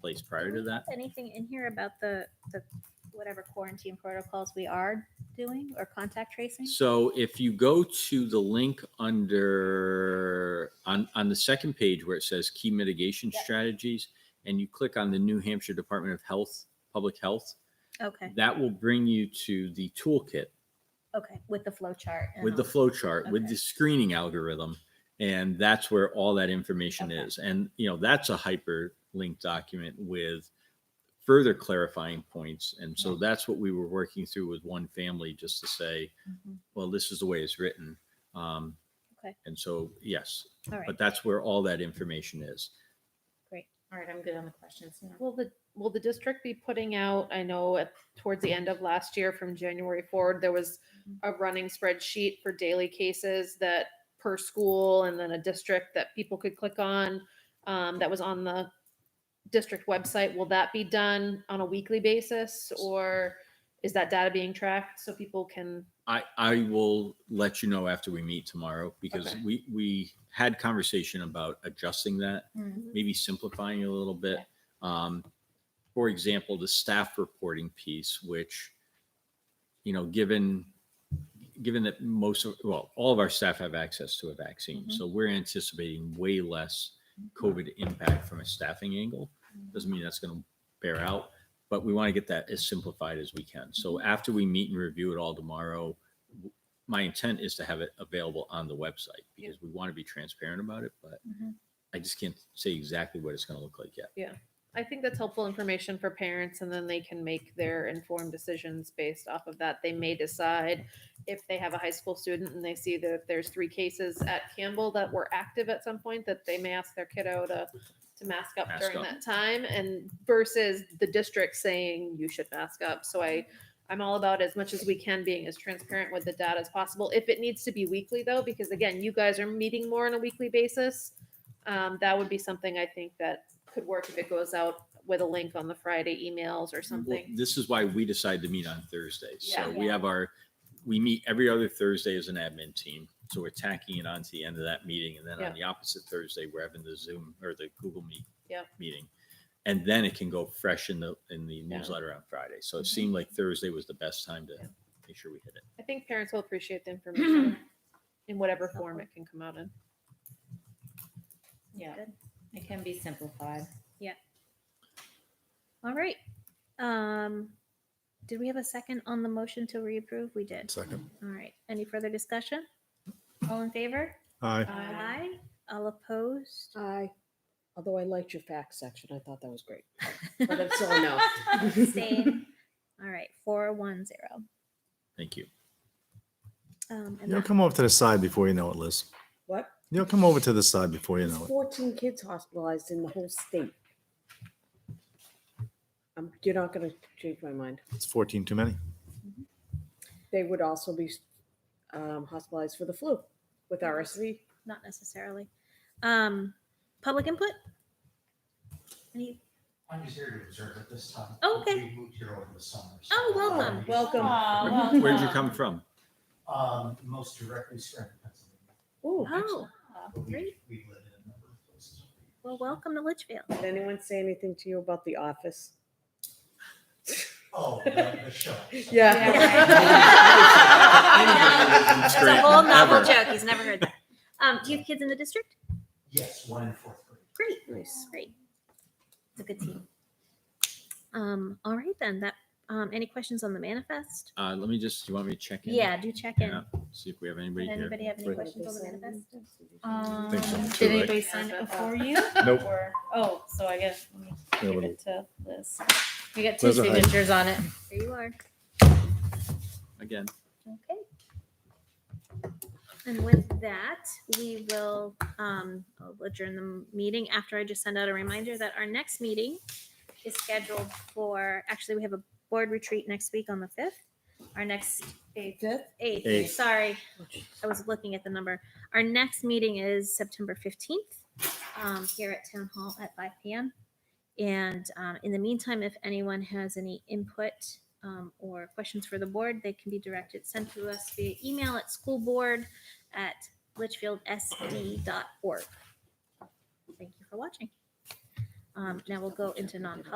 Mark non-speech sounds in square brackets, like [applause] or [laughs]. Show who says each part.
Speaker 1: place prior to that?
Speaker 2: Anything in here about the, the, whatever quarantine protocols we are doing or contact tracing?
Speaker 1: So if you go to the link under, on, on the second page where it says key mitigation
Speaker 2: Yep.
Speaker 1: strategies, and you click on the New Hampshire Department of Health, Public Health,
Speaker 2: Okay,
Speaker 1: that will bring you to the toolkit
Speaker 2: okay, with the flow chart. and
Speaker 1: with the
Speaker 2: all.
Speaker 1: flow chart, with
Speaker 2: Uh-huh. Okay.
Speaker 1: the screening algorithm. And that's where all that information
Speaker 2: Okay.
Speaker 1: is. And, you know, that's a hyperlinked document with further clarifying points. And so that's what we were working through with one family, just to say,
Speaker 2: Mhm.
Speaker 1: well, this is the way it's written. Um,
Speaker 2: Okay.
Speaker 1: And so, yes,
Speaker 2: All right,
Speaker 1: but that's where all that information is.
Speaker 2: great.
Speaker 3: All right, I'm good on the questions now.
Speaker 4: Will the, will the district be putting out, I know at, towards the end of last year from January forward, there was a running spreadsheet for daily cases that per school and then a district that people could click on, um, that was on the district website. Will that be done on a weekly basis or is that data being tracked so people can?
Speaker 1: I, I will let you know after we meet tomorrow because
Speaker 3: Okay.
Speaker 1: we, we had conversation about adjusting that,
Speaker 2: Mhm.
Speaker 1: maybe simplifying it a little bit.
Speaker 3: Okay.
Speaker 1: Um, for example, the staff reporting piece, which, you know, given, given that most of, well, all of our staff have access to a vaccine.
Speaker 2: Mhm.
Speaker 1: So we're anticipating way less COVID impact from a staffing angle. Doesn't mean that's going to bear out, but we want to get that as simplified as we can. So after we meet and review it all tomorrow, w- my intent is to have it available on the website
Speaker 4: Yeah. Mm-hmm.
Speaker 1: because we want to be transparent about it, but
Speaker 2: Mhm.
Speaker 1: I just can't say exactly what it's going to look like yet.
Speaker 4: I think that's helpful information for parents and then they can make their informed decisions based off of that. They may decide if they have a high school student and they see that there's three cases at Campbell that were active at some point, that they may ask their kiddo to, to mask up
Speaker 1: Mask
Speaker 4: during
Speaker 1: up.
Speaker 4: that time and versus the district saying you should mask up. So I, I'm all about as much as we can being as transparent with the data as possible. If it needs to be weekly though, because again, you guys are meeting more on a weekly basis. Um, that would be something I think that could work if it goes out with a link on the Friday emails or
Speaker 1: Well,
Speaker 4: something.
Speaker 1: This is why we decided to meet on Thursdays. So
Speaker 2: Yeah.
Speaker 1: we have our, we meet every other Thursday as an admin team. So we're tacking it on to the end of that meeting. And then
Speaker 4: Yeah.
Speaker 1: on the opposite Thursday, we're having the Zoom or the Google Meet
Speaker 4: Yeah.
Speaker 1: meeting. And then it can go fresh in the, in the newsletter on Friday. So it seemed like Thursday was the best time to
Speaker 4: Mm-hmm. Yeah.
Speaker 1: make sure we hit it.
Speaker 4: I think parents will appreciate the information in whatever form it can come out in.
Speaker 3: Yeah,
Speaker 2: Good.
Speaker 3: it can be simplified.
Speaker 2: All right. Um, did we have a second on the motion to reapprove? We did.
Speaker 5: Second.
Speaker 2: All right. Any further discussion? All in favor?
Speaker 5: Aye.
Speaker 3: Aye.
Speaker 2: All
Speaker 6: [laughs]
Speaker 2: opposed?
Speaker 6: I, although I liked your facts section, I thought that was great. But I'm still a
Speaker 5: [laughs]
Speaker 6: no.
Speaker 2: Same. All right, four one zero.
Speaker 1: Thank you.
Speaker 2: Um, and
Speaker 5: You'll
Speaker 2: that-
Speaker 5: come over to the side before you know it, Liz.
Speaker 6: What?
Speaker 5: You'll come over to the side before you know it.
Speaker 6: Fourteen kids hospitalized in the whole state. Um, you're not gonna change my mind.
Speaker 5: It's 14 too many.
Speaker 6: They would also be um, hospitalized for the flu with RSV.
Speaker 2: not necessarily. Um, public input? Any,
Speaker 7: I'm just here to observe at this time.
Speaker 2: Oh, okay.
Speaker 7: We moved here over the summer. so-
Speaker 2: Oh, welcome.
Speaker 6: Welcome.
Speaker 1: Where- Where'd
Speaker 4: uh,
Speaker 1: you come from?
Speaker 7: Um, most directly straight from Pennsylvania.
Speaker 6: Ooh,
Speaker 2: oh,
Speaker 7: but we-
Speaker 2: Great.
Speaker 7: We live in a number of places.
Speaker 2: well, welcome to Litchfield.
Speaker 6: did anyone say anything to you about the office?
Speaker 7: Oh, the the show.
Speaker 2: [laughs]
Speaker 5: [laughs]
Speaker 1: [laughs]
Speaker 2: That's a whole novel
Speaker 1: Ever.
Speaker 2: joke. He's never heard that. Um, do you have kids in the district?
Speaker 7: Yes, one in fourth grade.
Speaker 2: Great,
Speaker 6: Nice.
Speaker 2: great. It's a good team. Um, all right then, that, um, any questions on the manifest?
Speaker 1: Uh, let me just, you want me to check in?
Speaker 2: Yeah, do check in.
Speaker 1: Yeah, See if we have anybody
Speaker 2: Did
Speaker 1: here.
Speaker 2: anybody have any
Speaker 1: Wait.
Speaker 2: questions on the manifest?
Speaker 3: Um,
Speaker 5: Think so, too,
Speaker 3: did
Speaker 5: right?
Speaker 3: anybody sign
Speaker 4: uh,
Speaker 3: it
Speaker 4: [laughs]
Speaker 3: before you?
Speaker 5: Nope.
Speaker 3: Or- Oh, so I guess, let me
Speaker 5: Yeah,
Speaker 3: give
Speaker 5: but-
Speaker 3: it to Liz. We got two
Speaker 5: Liz will hide.
Speaker 3: signatures on it.
Speaker 2: There you are.
Speaker 1: Again,
Speaker 2: Okay. And with that, we will um, I'll adjourn the meeting after I just send out a reminder that our next meeting is scheduled for, actually, we have a board retreat next week on the 5th. Our next
Speaker 5: Eighth.
Speaker 2: eighth, sorry, I was looking at the number. Our next meeting is September 15th um, here at Town Hall at 5 PM. And um, in the meantime, if anyone has any input um, or questions for the board, they can be directed, sent to us via email at schoolboard@litchfieldsd.org. Thank you for watching. Um, now we'll go into non-public.